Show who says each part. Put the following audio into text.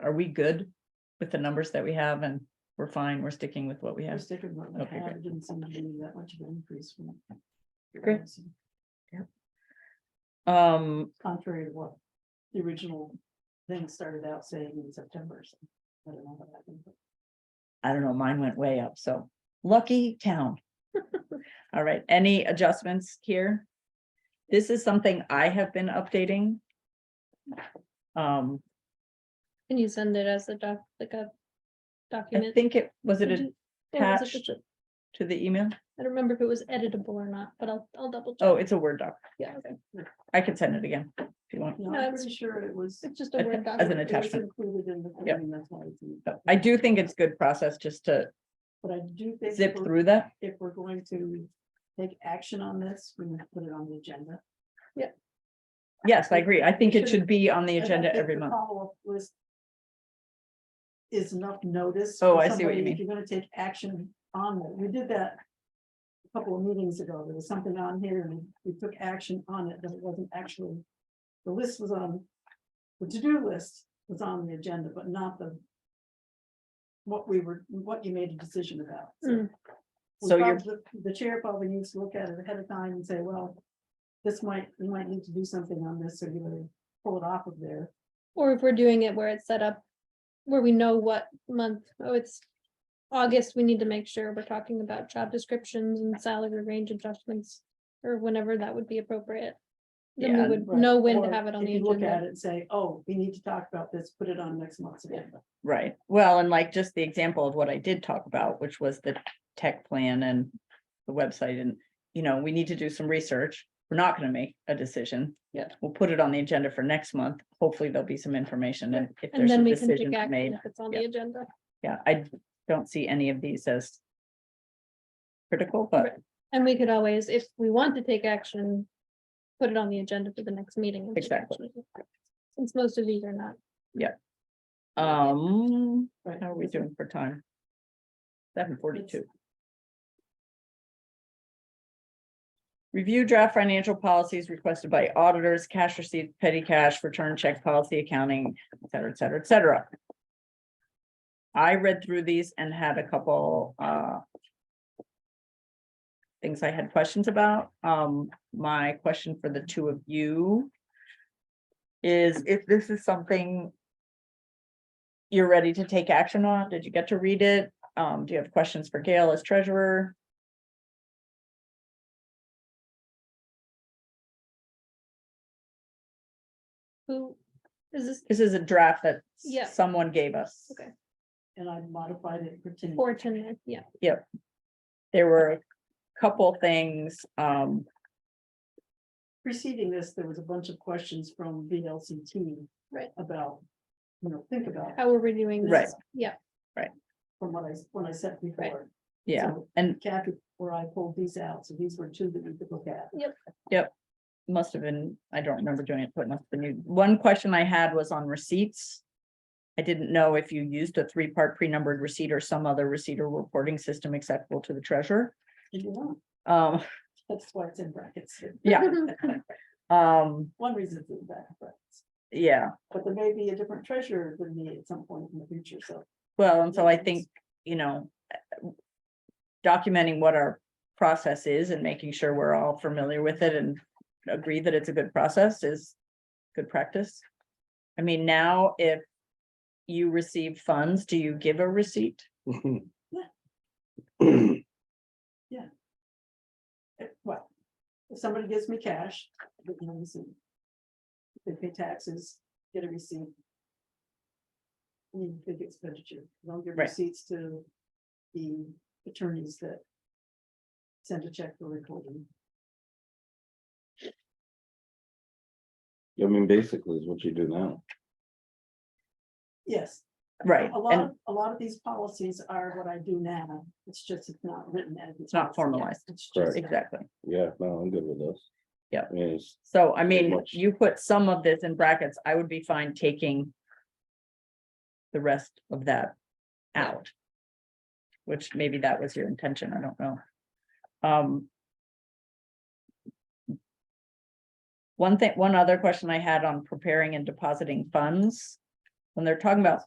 Speaker 1: are we good with the numbers that we have and we're fine, we're sticking with what we
Speaker 2: We're
Speaker 1: have?
Speaker 2: sticking with what
Speaker 1: Okay,
Speaker 2: we have,
Speaker 1: great.
Speaker 2: it didn't seem to be that much of an increase from.
Speaker 1: Great. Um,
Speaker 2: Contrary to what the original thing started out saying in September, so I don't know what happened. but
Speaker 1: I don't know, mine went way up, so lucky town. All right, any adjustments here? This is something I have been updating. Um,
Speaker 3: Can you send it as a doc, like a
Speaker 1: I
Speaker 3: document?
Speaker 1: think it, was it
Speaker 3: Did you- or was it
Speaker 1: attached?
Speaker 3: just a-
Speaker 1: to the email?
Speaker 3: I don't remember if it was editable or not, but I'll, I'll double check.
Speaker 1: Oh, it's a Word doc.
Speaker 3: Yeah.
Speaker 1: I can send it again if you want.
Speaker 2: No,
Speaker 3: No,
Speaker 2: I'm
Speaker 3: it's-
Speaker 2: pretty sure it was.
Speaker 3: It's just
Speaker 1: I
Speaker 3: a
Speaker 1: think-
Speaker 3: Word
Speaker 1: as an
Speaker 3: document.
Speaker 2: it was
Speaker 1: attachment.
Speaker 2: Included in the. thing,
Speaker 1: Yep.
Speaker 2: and that's why it's in-
Speaker 1: But I do think it's good process just to
Speaker 2: But I do think.
Speaker 1: zip
Speaker 2: if we're-
Speaker 1: through that.
Speaker 2: If we're going to take action on this, we need to put it on the agenda.
Speaker 1: Yes, I agree. I think it should be on the agenda every month.
Speaker 2: Follow-up list. Is enough notice.
Speaker 1: Oh,
Speaker 2: for
Speaker 1: I see what you
Speaker 2: somebody
Speaker 1: mean.
Speaker 2: If you're gonna take action on it, we did that. a Couple of meetings ago, there was something on here and we took action on it, but it wasn't actually, the list was on. The to-do list was on the agenda, but not the. What we were, what you made a decision about.
Speaker 3: Mm.
Speaker 2: we
Speaker 1: So you're-
Speaker 2: probably- The chair probably needs to look at it ahead of time and say, well. This might, you might need to do something on this, so you better pull it off of there.
Speaker 3: Or if we're doing it where it's set up, where we know what month, oh, it's August, we need to make sure we're talking about job descriptions and salary range adjustments. Or whenever that would be appropriate. Then
Speaker 1: Yeah,
Speaker 3: we would
Speaker 2: Right.
Speaker 3: know when to
Speaker 2: Or
Speaker 3: have it on
Speaker 2: if
Speaker 3: the
Speaker 2: you Look at
Speaker 3: agenda.
Speaker 2: it and say, oh, we need to talk about this, put it on next month's agenda.
Speaker 1: Right. Well, and like just the example of what I did talk about, which was the tech plan and the website and, you know, we need to do some research. We're not going to make a decision.
Speaker 3: Yeah.
Speaker 1: We'll put it on the agenda for next month. Hopefully there'll be some information and if
Speaker 3: And
Speaker 1: there's a
Speaker 3: then we can take
Speaker 1: decision
Speaker 3: action
Speaker 1: made.
Speaker 3: if it's on
Speaker 1: yeah.
Speaker 3: the agenda.
Speaker 1: Yeah, I don't see any of these as critical, but
Speaker 3: And we could always, if we want to take action, put it on the agenda for the next meeting. and take
Speaker 1: Exactly.
Speaker 3: action. Since most of these are not.
Speaker 1: um,
Speaker 2: Right.
Speaker 1: how are we doing for time? Seven forty-two. Review draft financial policies requested by auditors, cash receipts, petty cash, return check policy accounting, et cetera, et cetera, et cetera. I read through these and had a couple, uh. Things I had questions about. Um, my question for the two of you. Is if this is something. You're ready to take action on? Did you get to read it? Um, do you have questions for Gail as treasurer?
Speaker 3: Who is this
Speaker 1: This is a draft that
Speaker 3: Yeah.
Speaker 1: someone gave us.
Speaker 3: Okay.
Speaker 2: And I modified it for ten.
Speaker 3: for tonight? Yeah,
Speaker 1: There were a couple things, um,
Speaker 2: Preceding this, there was a bunch of questions from VLCT.
Speaker 3: Right.
Speaker 2: About, you know, think about
Speaker 3: how are we doing? this?
Speaker 1: Right.
Speaker 3: Yeah,
Speaker 2: from what I, when I said before.
Speaker 1: yeah,
Speaker 2: So
Speaker 1: and
Speaker 2: Kathy, where I pulled these out, so these were two that we could look at.
Speaker 1: must have been, I don't remember doing it, but must have been, you. one question I had was on receipts. I didn't know if you used a three-part pre-numbered receipt or some other receipt or reporting system acceptable to the treasurer.
Speaker 2: If you want,
Speaker 1: Um,
Speaker 2: that's why it's in brackets.
Speaker 1: yeah, um,
Speaker 2: One reason it's in brackets,
Speaker 1: yeah,
Speaker 2: but there may be a different treasurer than me at some point in the future, so.
Speaker 1: well, and so I think, you know, uh, documenting what our process is and making sure we're all familiar with it and agree that it's a good process is good practice. I mean, now if you receive funds, do you give a receipt?
Speaker 2: eh, Well, if somebody gives me cash, I get no receipt. If They pay taxes, get a receipt. I mean, big expenditure, don't give
Speaker 1: Right.
Speaker 2: receipts to the attorneys that. Send a check for recording.
Speaker 4: I mean, basically is what you do now.
Speaker 2: Yes,
Speaker 1: Right,
Speaker 2: a lot,
Speaker 1: and
Speaker 2: of- a lot of these policies are what I do now, it's just it's not written as.
Speaker 1: It's not formalized.
Speaker 2: It's
Speaker 4: Correct.
Speaker 2: just.
Speaker 1: exactly.
Speaker 4: Yeah, no, I'm good with this.
Speaker 1: Yeah.
Speaker 4: I mean, it's-
Speaker 1: So I mean,
Speaker 4: much.
Speaker 1: you put some of this in brackets, I would be fine taking the rest of that out. Which maybe that was your intention, I don't know. Um. One thing, one other question I had on preparing and depositing funds. When they're talking about